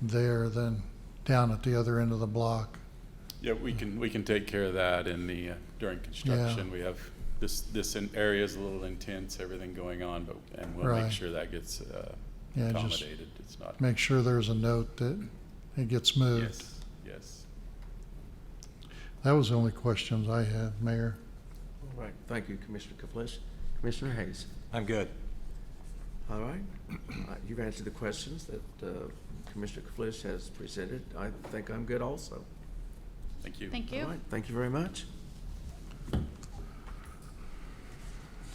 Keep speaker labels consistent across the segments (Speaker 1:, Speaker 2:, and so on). Speaker 1: there than down at the other end of the block.
Speaker 2: Yeah, we can, we can take care of that in the, uh, during construction. We have, this, this in- area is a little intense, everything going on, but, and we'll
Speaker 1: Right.
Speaker 2: make sure that gets uh,
Speaker 1: Yeah, just-
Speaker 2: accommodated. It's not,
Speaker 1: Make sure there's a note that it gets moved.
Speaker 2: yes, yes.
Speaker 1: That was the only questions I had, Mayor.
Speaker 3: All right, thank you, Commissioner Kaplis. Commissioner Hayes?
Speaker 4: I'm good.
Speaker 3: All right, Uh, you've answered the questions that uh, Commissioner Kaplis has presented. I think I'm good also.
Speaker 2: Thank you.
Speaker 5: Thank
Speaker 3: All
Speaker 5: you.
Speaker 3: right, thank you very much.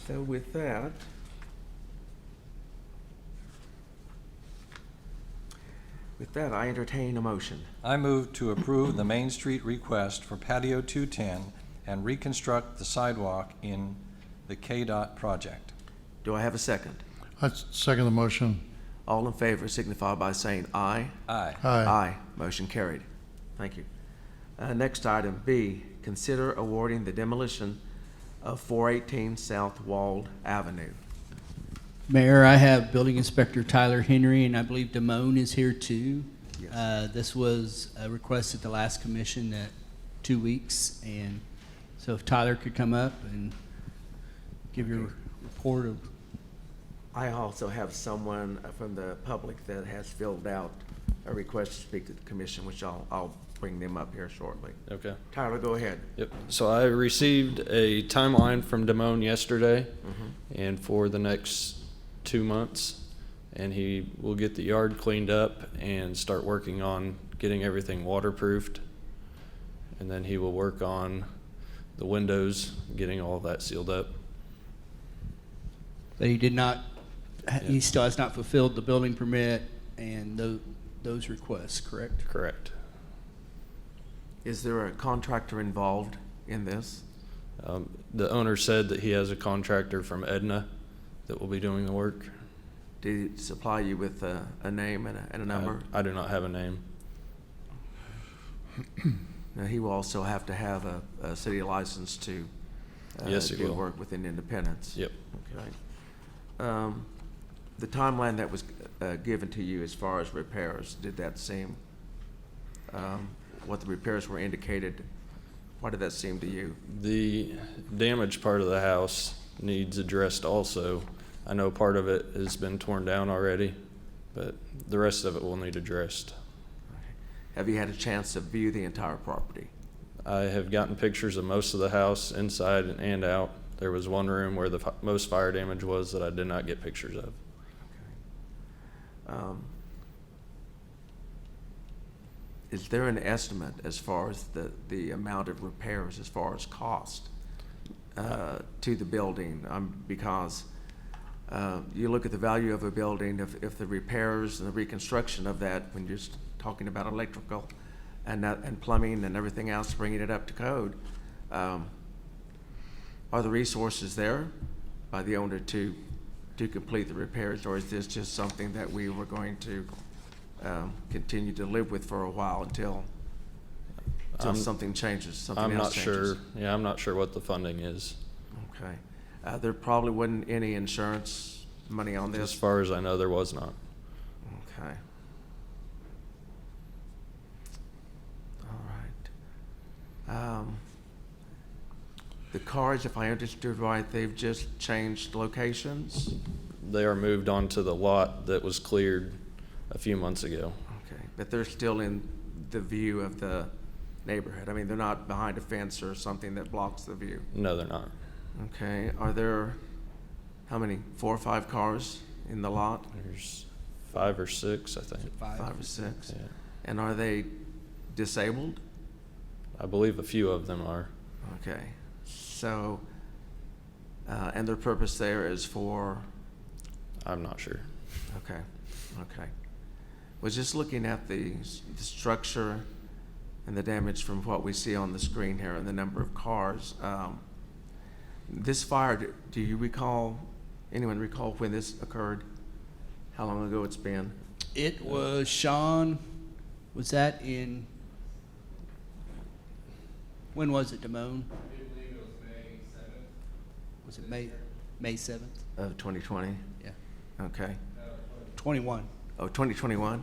Speaker 3: So with that, with that, I entertain a motion.
Speaker 4: I move to approve the Main Street request for patio 210 and reconstruct the sidewalk in the KDOT project.
Speaker 3: Do I have a second?
Speaker 1: I s- second the motion.
Speaker 3: All in favor signify by saying aye.
Speaker 4: Aye.
Speaker 1: Aye.
Speaker 3: Motion carried. Thank you. Uh, Next item, B, consider awarding the demolition of 418 South Walled Avenue.
Speaker 6: Mayor, I have Building Inspector Tyler Henry, and I believe Damone is here too.
Speaker 3: Yes.
Speaker 6: Uh, This was a request at the last commission that, two weeks, and so if Tyler could come up and give your report of,
Speaker 3: I also have someone uh, from the public that has filled out a request to speak to the commission, which I'll, I'll bring them up here shortly.
Speaker 7: Okay.
Speaker 3: Tyler, go ahead.
Speaker 7: Yep. So I received a timeline from Damone yesterday and for the next two months. And he will get the yard cleaned up and start working on getting everything waterproofed. And then he will work on the windows, getting all that sealed up.
Speaker 6: that he did not, he still has not fulfilled the building permit and tho- those requests, correct?
Speaker 7: Correct.
Speaker 3: Is there a contractor involved in this?
Speaker 7: Um, the owner said that he has a contractor from Edna that will be doing the work.
Speaker 3: Did he supply you with a, a name and a, and a number?
Speaker 7: I, I do not have a name.
Speaker 3: Now, he will also have to have a, a city license to. uh,
Speaker 7: Yes, he
Speaker 3: Do
Speaker 7: will.
Speaker 3: work within Independence.
Speaker 7: Yep.
Speaker 3: Okay. Um, The timeline that was uh, given to you as far as repairs, did that seem, um, what the repairs were indicated, what did that seem to you?
Speaker 7: The damaged part of the house needs addressed also. I know part of it has been torn down already, but the rest of it will need addressed.
Speaker 3: Have you had a chance to view the entire property?
Speaker 7: I have gotten pictures of most of the house inside and out. There was one room where the fi- most fire damage was that I did not get pictures of.
Speaker 3: Um, Is there an estimate as far as the, the amount of repairs, as far as cost uh, to the building? Um, Because uh, you look at the value of a building, if, if the repairs and the reconstruction of that, when you're s- talking about electrical and, that- and plumbing and everything else, bringing it up to code, um, are the resources there by the owner to, to complete the repairs? Or is this just something that we were going to um, continue to live with for a while until, until
Speaker 7: I'm-
Speaker 3: something changes, something
Speaker 7: I'm
Speaker 3: else
Speaker 7: not
Speaker 3: changes?
Speaker 7: sure, yeah, I'm not sure what the funding is.
Speaker 3: Okay. Uh, There probably wasn't any insurance money on
Speaker 7: As
Speaker 3: this?
Speaker 7: far as I know, there was not.
Speaker 3: Okay. All right. Um, The cars, if I understood right, they've just changed locations?
Speaker 7: They are moved onto the lot that was cleared a few months ago.
Speaker 3: Okay, but they're still in the view of the neighborhood. I mean, they're not behind a fence or something that blocks the view.
Speaker 7: No, they're not.
Speaker 3: Okay, are there, how many, four or five cars in the lot?
Speaker 7: There's five or six, I think.
Speaker 3: Five or six?
Speaker 7: Yeah.
Speaker 3: And are they disabled?
Speaker 7: I believe a few of them are.
Speaker 3: Okay, so, uh, and their purpose there is for,
Speaker 7: I'm not sure.
Speaker 3: okay, okay. Was just looking at the, s- the structure and the damage from what we see on the screen here and the number of cars. Um, This fire, d- do you recall, anyone recall when this occurred? How long ago it's been?
Speaker 6: It was, Sean, was that in, when was it, Damone? I believe it was May 7th. Was it May, May 7th?
Speaker 3: Of 2020?
Speaker 6: Yeah,
Speaker 3: Okay.
Speaker 6: 21.
Speaker 3: Oh, 2021?